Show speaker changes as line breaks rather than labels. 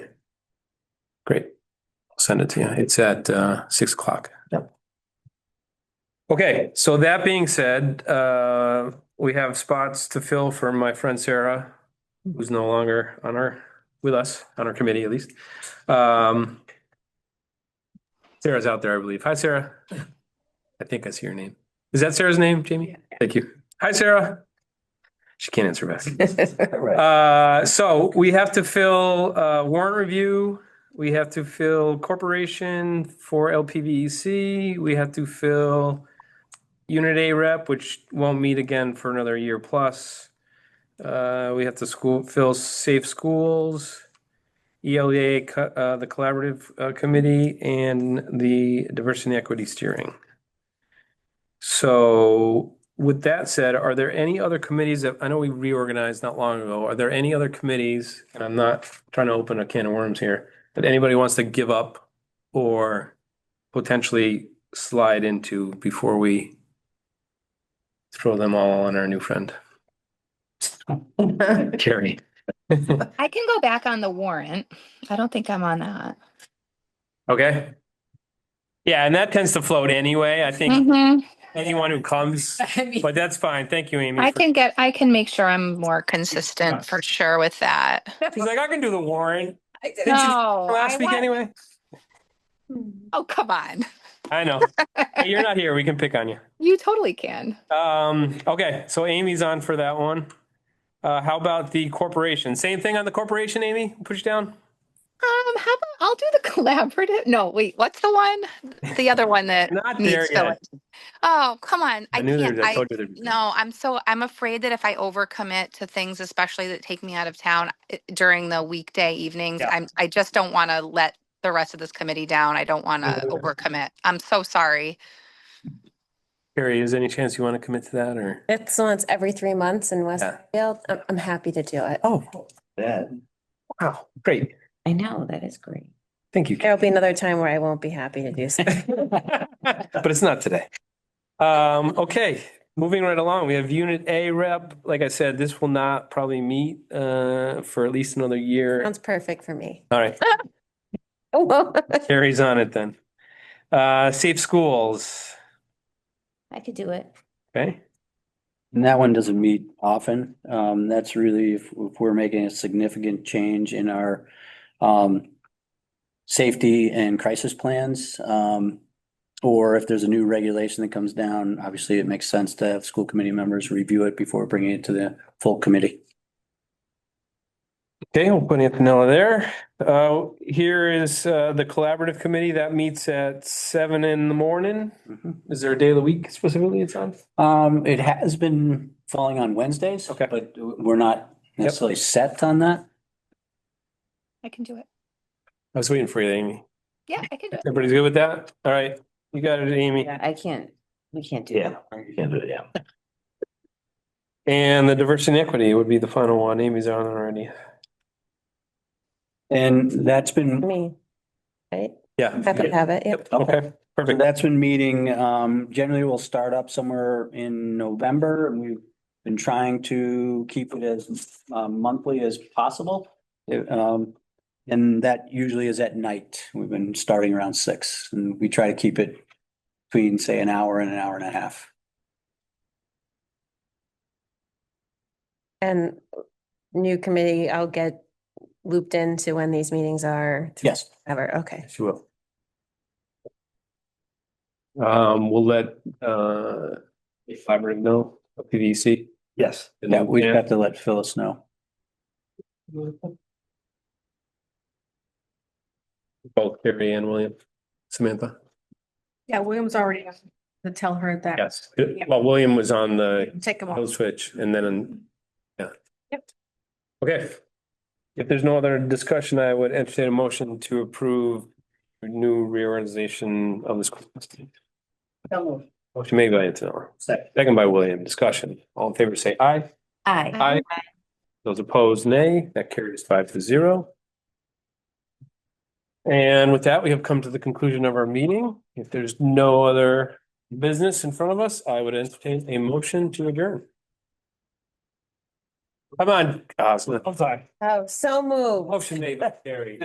send it to you. It's at uh, six o'clock.
Yep.
Okay, so that being said, uh, we have spots to fill for my friend Sarah, who's no longer on our, with us, on our committee at least. Um, Sarah's out there, I believe. Hi, Sarah. I think I see your name. Is that Sarah's name, Jamie? Thank you. Hi, Sarah. She can't answer back.
Right.
Uh, so we have to fill, uh, warrant review. We have to fill corporation for LPVEC. E We have to fill unit A rep, which won't meet again for another year plus. Uh, we have to school, fill safe schools, ELA, co- uh, the collaborative, uh, committee and the diversity and equity steering. So with that said, are there any other committees that, I know we reorganized not long ago, are there any other committees? And I'm not trying to open a can of worms here, that anybody wants to give up or potentially slide into before we throw them all on our new friend, Carrie.
I can go back on the warrant. I don't think I'm on that.
Okay? Yeah, and that tends to float anyway. I think
Mhm.
anyone who comes, but that's fine. Thank you, Amy.
I
for-
can get, I can make sure I'm more consistent for sure with that.
She's like, I can do the warrant you-
No. I
last week
want-
anyway.
Oh, come on.
I know. Hey, You're not here. We can pick on you.
You totally can.
Um, okay, so Amy's on for that one. Uh, how about the corporation? Same thing on the corporation, Amy? Push down?
Um, how about, I'll do the collaborative. No, wait, what's the one? The other one that
Not there
needs filling.
yet.
Oh, come on. I
knew
can't,
there, I
I,
told you there'd be.
no, I'm so, I'm afraid that if I overcommit to things, especially that take me out of town eh, during the weekday evenings,
Yeah.
I'm, I just don't want to let the rest of this committee down. I don't want to
Mhm.
overcommit. I'm so sorry.
Carrie, is there any chance you want to commit to that or?
It's once every three months in
Yeah.
Westfield. I'm, I'm happy to do it.
Oh,
That,
wow, great.
I know, that is great.
Thank you. Carrie.
There'll be another time where I won't be happy to do something.
But it's not today. Um, okay, moving right along, we have Unit A rep. Like I said, this will not probably meet, uh, for at least another year.
Sounds perfect for me.
All right. Carrie's on it then. Uh, safe schools,
I could do it.
okay?
and that one doesn't meet often. Um, that's really if, if we're making a significant change in our, um, safety and crisis plans, um, or if there's a new regulation that comes down, obviously it makes sense to have school committee members review it before bringing it to the full committee.
Okay, we'll put Antonella there. Uh, here is, uh, the collaborative committee that meets at seven in the morning. Is there a day of the week specifically it's on?
Um, it has been falling on Wednesdays.
Okay.
But we're not necessarily set on that.
I can do it.
I was waiting for you, Amy.
Yeah, I can do it.
Everybody's good with that? All right, you got it, Amy.
Yeah, I can't, we can't do
Yeah,
that.
you can do it, yeah.
And the diversity and equity would be the final one. Amy's on already.
And that's been,
Me, right?
Yeah.
Happy to have it. Yep.
Okay,
so
perfect.
that's been meeting, um, generally we'll start up somewhere in November and we've been trying to keep it as um, monthly as possible. It, Um, and that usually is at night. We've been starting around six and we try to keep it between, say, an hour and an hour and a half.
And new committee, I'll get looped into when these meetings are.
Yes.
Ever, okay.
She will. Um, we'll let, uh, Fiber know, E PVC.
Yes.
Yeah, we've got to let Phyllis know.
Both Carrie and William. Samantha?
Yeah, William's already asked to tell her that.
Yes. Well, William was on the
Take them
hill
off.
switch and then, yeah.
Yep.
Okay. If there's no other discussion, I would entertain a motion to approve new reorganization of the school. system. Motion made by Antonella,
Second.
second by William. Discussion. All in favor, say aye.
I,
Aye. Those opposed, nay. That carries five to zero. And with that, we have come to the conclusion of our meeting. If there's no other business in front of us, I would entertain a motion to adjourn. Come on, Goslin. I'm sorry.
Oh, so moved.
Motion made by Carrie.